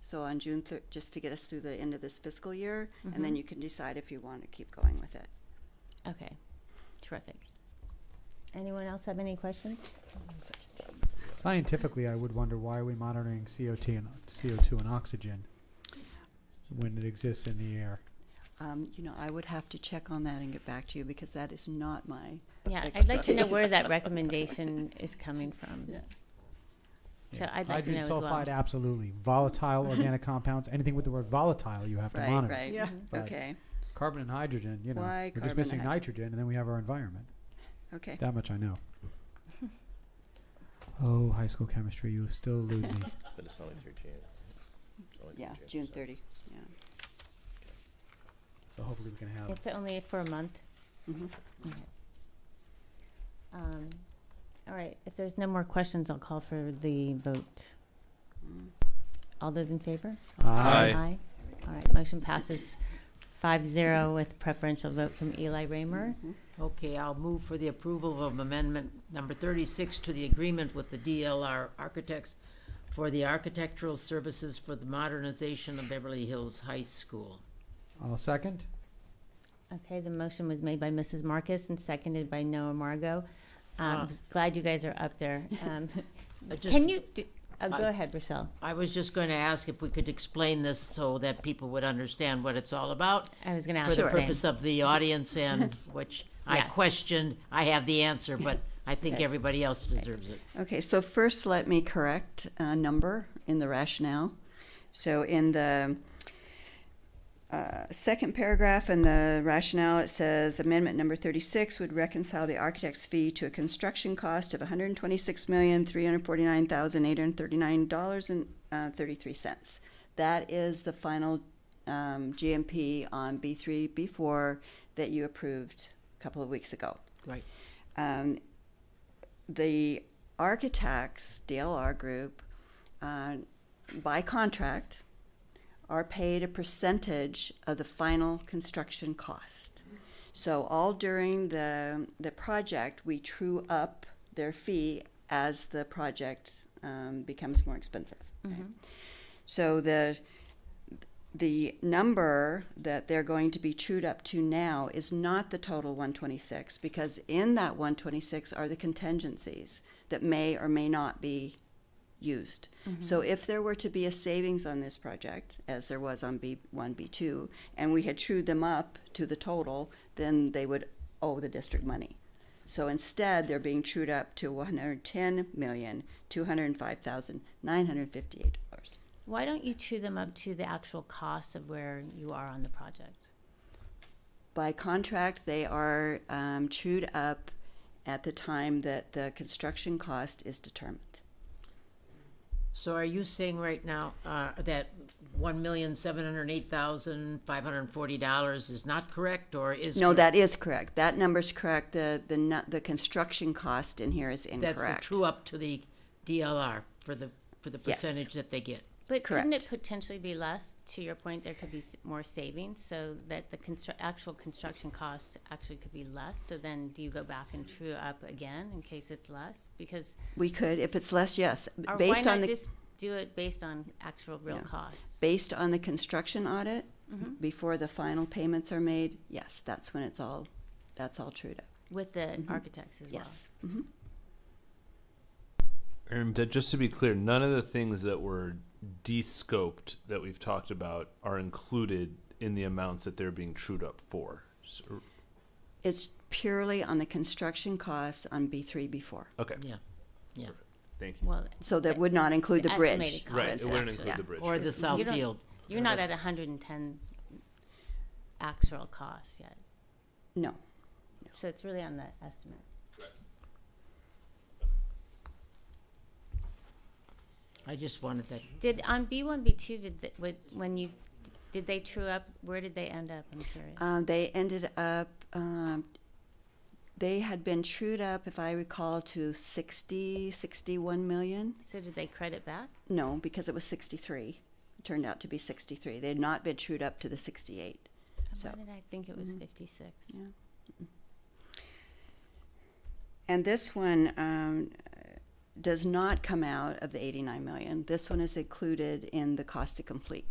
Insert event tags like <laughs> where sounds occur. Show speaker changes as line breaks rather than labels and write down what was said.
So on June thir- just to get us through the end of this fiscal year, and then you can decide if you want to keep going with it.
Okay, terrific. Anyone else have any questions?
Scientifically, I would wonder why are we monitoring CO2 and CO2 and oxygen when it exists in the air?
Um, you know, I would have to check on that and get back to you because that is not my.
Yeah, I'd like to know where that recommendation is coming from.
Yeah.
So I'd like to know as
Hydrogen sulfide,
well.
absolutely.
<laughs>
Volatile organic compounds, anything with the word volatile, you have to
Right,
monitor.
right.
Yeah.
But
Okay,
Carbon and hydrogen, you know,
Why
we're
carbon
just missing
and hy-
nitrogen, and then we have our environment.
okay.
That much
<laughs>
I know. oh, high school chemistry, you still lose me.
<laughs>
But it's only through June. It's only through
Yeah, June
so-
30. Yeah.
So hopefully we can have.
It's only for a month.
Mhm.
Okay. Um, All right, if there's no more questions, I'll call for the vote.
Mm.
All those in favor?
Aye.
Aye. All right, motion passes five zero with preferential vote from Eli Raymer.
Okay, I'll move for the approval of amendment number thirty-six to the agreement with the DLR Architects for the architectural services for the modernization of Beverly Hills High School.
I'll second.
Okay, the motion was made by Mrs. Marcus and seconded by Noah Margot.
Ah.
Um, Glad you guys are up there. Um,
I just-
Can you, do- oh, go
I-
ahead, Rochelle.
I was just going to ask if we could explain this so that people would understand what it's all about
I was gonna
for
ask
the
the same.
purpose of the audience and which
<laughs>
I
Yes.
questioned. I have the answer, but I think
Okay.
everybody else deserves it.
Okay, so first, let me correct a number in the rationale. So in the uh, second paragraph in the rationale, it says amendment number 36 would reconcile the architect's fee to a construction cost of $126,349,839.33. uh, That is the final um, GMP on B3, B4 that you approved a couple of weeks ago
Right.
um, the architects, DLR group, uh, by contract, are paid a percentage of the final construction cost. So all during the, the project, we true up their fee as the project um, becomes more expensive. right? So the, the number that they're going to be trued up to now is not the total 126 because in that 126 are the contingencies that may or may not be used. So if there were to be a savings on this project, as there was on B1, B2, and we had trued them up to the total, then they would owe the district money. So instead, they're being trued up to 110,205,958 dollars.
Why don't you chew them up to the actual cost of where you are on the project?
By contract, they are um, chewed up at the time that the construction cost is determined.
So are you saying right now uh, that one million seven hundred eight thousand five hundred forty dollars is not correct, or is
No,
correct?
that is correct. That number's correct. The, the, nu- the construction cost in here is incorrect.
That's the true up to the DLR for the, for the
Yes.
percentage that they get.
But couldn't
Correct.
it potentially be less? To your point, there could be s- more savings, so that the constru- actual construction cost actually could be less. So then, do you go back and true up again in case it's less? Because
We could, if it's less, yes.
or
Based
why
on
not
the,
just do it based on actual real
Yeah.
costs?
based on the construction audit,
Mm-hmm.
before the final payments are made, yes, that's when it's all, that's all trued up.
with the architects as
Mm-hmm. Yes.
And uh, just to be clear, none of the things that were de-scoped that we've talked about are included in the amounts that they're being trued up for. So-
It's purely on the construction costs on B3, B4.
okay,
Yeah, yeah.
thank you.
well. Well,
So that would not include the
The
bridge.
estimated
for
cost.
Right, it
instance.
wouldn't include
Yeah.
the bridge.
Or the
right.
south
You don't-
field.
you're not at 110 actual cost yet,
No.
so it's really on the estimate.
I just wanted that.
Did on B one, B two, did, th- would- when you, did they true up, where did they end up, I'm curious?
Uh, they ended up, um, they had been trued up, if I recall, to 60, 61 million.
So did they credit back?
No, because it was 63. It turned out to be 63. They had not been trued up to the 68. So, Mm-hmm.
Why did I think it was fifty-six?
and this one, um, does not come out of the 89 million. This one is included in the cost to complete.